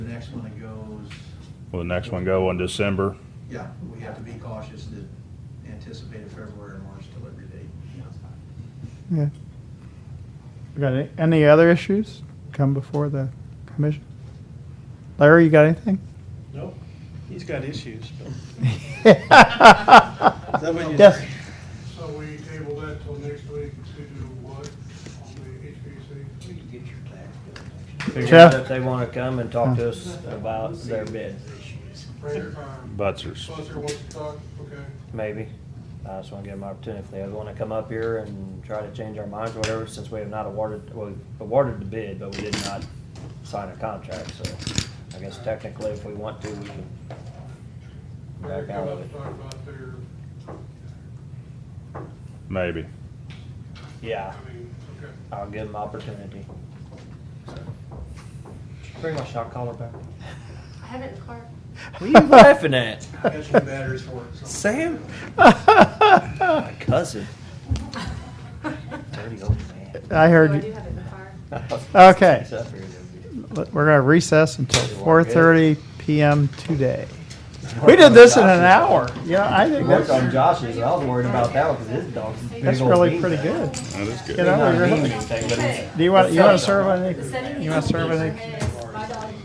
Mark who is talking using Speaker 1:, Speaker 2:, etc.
Speaker 1: next one that goes,
Speaker 2: Will the next one go in December?
Speaker 1: yeah, we have to be cautious to anticipate a February or March delivery date.
Speaker 3: Yeah. We Got any, any other issues come before the commission? Larry, you got anything?
Speaker 4: Nope, he's got issues, but that what you-
Speaker 3: Yes.
Speaker 5: So we table that till next week to do what on the HVAC?
Speaker 4: figure
Speaker 3: Jeff?
Speaker 4: out if they wanna come and talk to us about their bid,
Speaker 5: Prayer time.
Speaker 2: Butzers.
Speaker 5: Buster wants to talk, okay.
Speaker 4: maybe. I just wanna give them an opportunity, if they wanna come up here and try to change our minds, or whatever, since we have not awarded, well, awarded the bid, but we did not sign a contract, so I guess technically if we want to, we can
Speaker 5: They're
Speaker 4: back out
Speaker 5: gonna
Speaker 4: of
Speaker 5: have
Speaker 4: it.
Speaker 5: to talk about their,
Speaker 2: Maybe.
Speaker 5: I
Speaker 4: Yeah,
Speaker 5: mean, okay.
Speaker 4: I'll give them opportunity. Pretty much, I'll call her back.
Speaker 6: I have it in the car.
Speaker 4: What are you laughing at?
Speaker 1: I got some batteries for it, so.
Speaker 4: Sam? My cousin. Dirty old man.
Speaker 3: I
Speaker 6: No, I
Speaker 3: heard,
Speaker 6: do
Speaker 3: you.
Speaker 6: have it in the car.
Speaker 3: Okay.
Speaker 4: He's up here, dude.
Speaker 3: we're gonna recess until
Speaker 4: You
Speaker 3: four
Speaker 4: want good?
Speaker 3: thirty PM today. We did this in an hour. You know, I
Speaker 4: He
Speaker 3: think
Speaker 4: worked on
Speaker 3: that's,
Speaker 4: Josh's, and I was worried about that one because his dog's a big
Speaker 3: that's
Speaker 4: old
Speaker 3: really
Speaker 4: bean
Speaker 3: pretty
Speaker 4: bag.
Speaker 3: good.
Speaker 2: That is
Speaker 3: You know,
Speaker 4: Not a
Speaker 3: you're-
Speaker 4: bean anything, but he's-
Speaker 3: Do you want, you want to
Speaker 4: Setting
Speaker 3: serve
Speaker 4: up.
Speaker 3: on
Speaker 6: The
Speaker 3: any,
Speaker 6: setting
Speaker 3: you want to
Speaker 6: is
Speaker 3: serve
Speaker 6: in
Speaker 3: any?
Speaker 6: your head.